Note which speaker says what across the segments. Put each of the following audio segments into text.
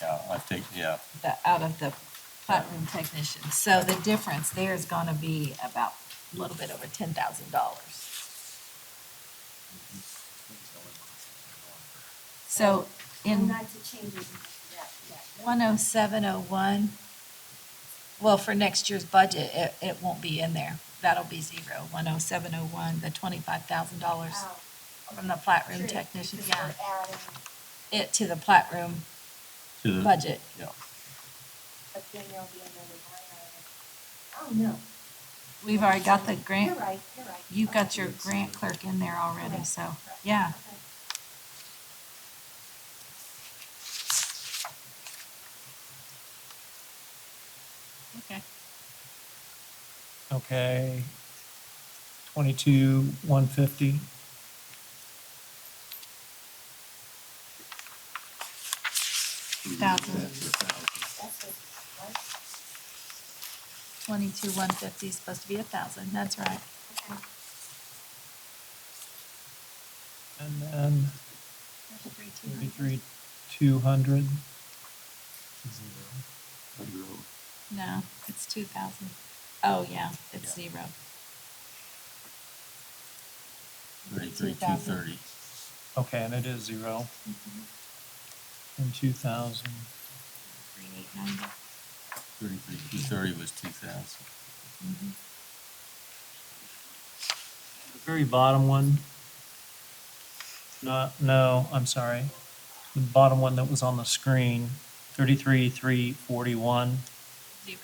Speaker 1: Yeah, I think, yeah,
Speaker 2: the, out of the platinum technician. So the difference there is gonna be about a little bit over ten thousand dollars. So
Speaker 3: And
Speaker 2: in
Speaker 3: not to change it, that, that.
Speaker 2: one oh seven oh one, well, for next year's budget, it, it won't be in there. That'll be zero. One oh seven oh one, the twenty-five thousand dollars
Speaker 3: Oh,
Speaker 2: from the plat room
Speaker 3: true,
Speaker 2: technician,
Speaker 3: because
Speaker 2: yeah,
Speaker 3: we're adding
Speaker 2: it to the plat room
Speaker 1: to the,
Speaker 2: budget.
Speaker 1: yeah.
Speaker 3: But then there'll be another line item. Oh, no.
Speaker 2: We've already got the
Speaker 3: You're
Speaker 2: grant,
Speaker 3: right, you're right.
Speaker 2: you've got your grant clerk in there already, so, yeah.
Speaker 3: Okay.
Speaker 2: Okay.
Speaker 4: Okay. Twenty-two, one fifty.
Speaker 2: Thousand.
Speaker 3: That's what, right?
Speaker 2: Twenty-two, one fifty is supposed to be a thousand, that's right.
Speaker 3: Okay.
Speaker 4: And then
Speaker 2: Thirty-three, two hundred.
Speaker 4: thirty-three, two hundred.
Speaker 2: No, it's two thousand. Oh, yeah, it's zero.
Speaker 1: Thirty-three, two
Speaker 2: 2,000.
Speaker 1: thirty.
Speaker 4: Okay, and it is zero. And two thousand.
Speaker 2: Three, eight, ninety.
Speaker 1: Thirty-three, two thirty was two thousand.
Speaker 4: The very bottom one. Not, no, I'm sorry. The bottom one that was on the screen, thirty-three, three forty-one.
Speaker 2: Zero,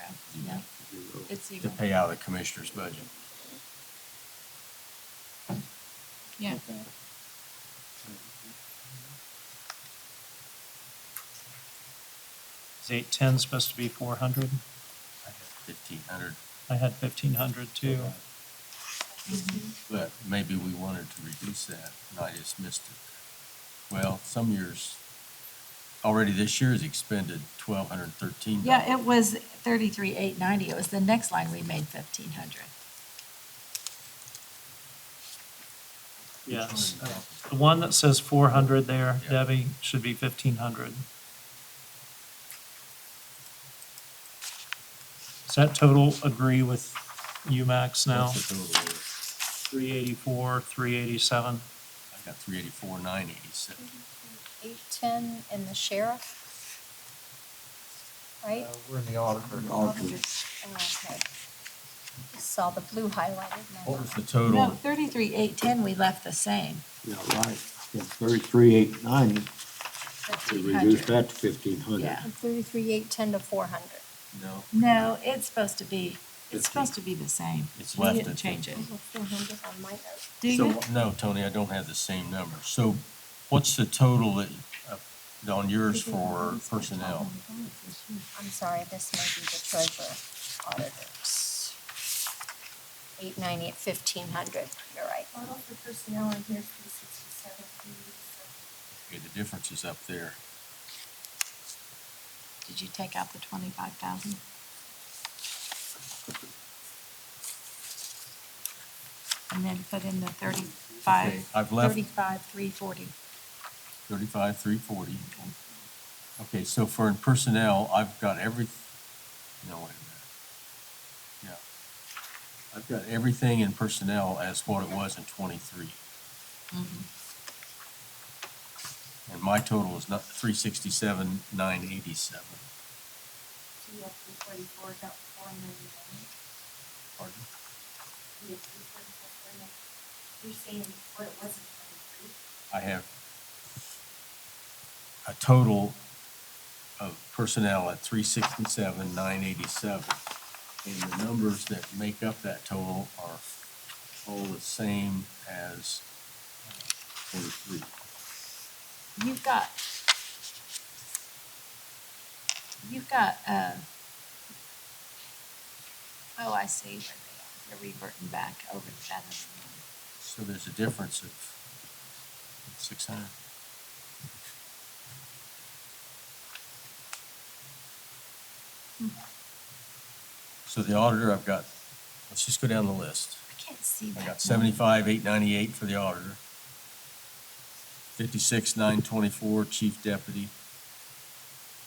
Speaker 2: yeah, it's
Speaker 1: To
Speaker 2: zero,
Speaker 1: pay out of the commissioner's budget.
Speaker 2: yeah.
Speaker 4: Is eight ten supposed to be four hundred?
Speaker 1: I had fifteen hundred,
Speaker 4: I had fifteen hundred too.
Speaker 1: but maybe we wanted to reduce that, and I just missed it. Well, some years, already this year's expended twelve hundred and thirteen.
Speaker 2: Yeah, it was thirty-three, eight, ninety. It was the next line we made fifteen hundred.
Speaker 4: Yes. The one that says four hundred there,
Speaker 1: Yeah.
Speaker 4: Debbie, should be fifteen hundred. Does that total agree with you, Max, now?
Speaker 1: That's the total.
Speaker 4: Three eighty-four, three eighty-seven?
Speaker 1: I got three eighty-four, nine eighty-seven.
Speaker 5: eight ten and the sheriff? Right?
Speaker 6: We're in the auditor.
Speaker 5: Oh,
Speaker 3: uh,
Speaker 5: okay. Saw the blue highlighted. and I
Speaker 1: What was the
Speaker 2: No,
Speaker 1: total?
Speaker 2: thirty-three, eight, ten, we left the same,
Speaker 7: Yeah, right. Yeah, thirty-three, eight ninety, we
Speaker 2: fifteen
Speaker 7: reduced
Speaker 2: hundred.
Speaker 7: that to fifteen hundred.
Speaker 2: Yeah.
Speaker 5: went Thirty-three, eight ten to four hundred.
Speaker 1: No.
Speaker 2: No, it's supposed to be, it's supposed to be the same.
Speaker 1: It's
Speaker 2: We
Speaker 1: left
Speaker 2: didn't
Speaker 1: at
Speaker 2: change it.
Speaker 5: Over four hundred on my note.
Speaker 2: Do
Speaker 1: So-
Speaker 2: you?
Speaker 1: No, Tony, I don't have the same number. So what's the total that, uh, on yours for personnel?
Speaker 5: I'm sorry, this may be the treasurer auditors. Eight ninety at fifteen hundred, you're right.
Speaker 3: Total for personnel on here is three sixty-seven, three eighty-seven.
Speaker 1: Okay, the difference is up there.
Speaker 2: Did you take out the twenty-five thousand? And then put in the
Speaker 1: Okay,
Speaker 2: thirty-five,
Speaker 1: I've left
Speaker 2: thirty-five, three forty.
Speaker 1: thirty-five, three forty. Okay, so for in personnel, I've got every, no, wait a minute. Yeah. I've got everything in personnel as what it was in twenty-three.
Speaker 3: Mm-hmm.
Speaker 1: And my total is not three sixty-seven, nine eighty-seven.
Speaker 3: So you have three forty-four, about four million.
Speaker 1: Pardon?
Speaker 3: You have three forty-four, four million. You're saying what it was in twenty-three?
Speaker 1: I have a total of personnel at three sixty-seven, nine eighty-seven. And the numbers that make up that total are all the same as uh, forty-three.
Speaker 2: You've got, you've got, uh, oh, I see where they are. They're reverting back over to that. other one.
Speaker 1: So there's a difference of six hundred. So the auditor, I've got, let's just go down the list.
Speaker 2: I can't see that.
Speaker 1: I
Speaker 2: number.
Speaker 1: got seventy-five, eight ninety-eight for the auditor. Fifty-six, nine twenty-four, chief deputy.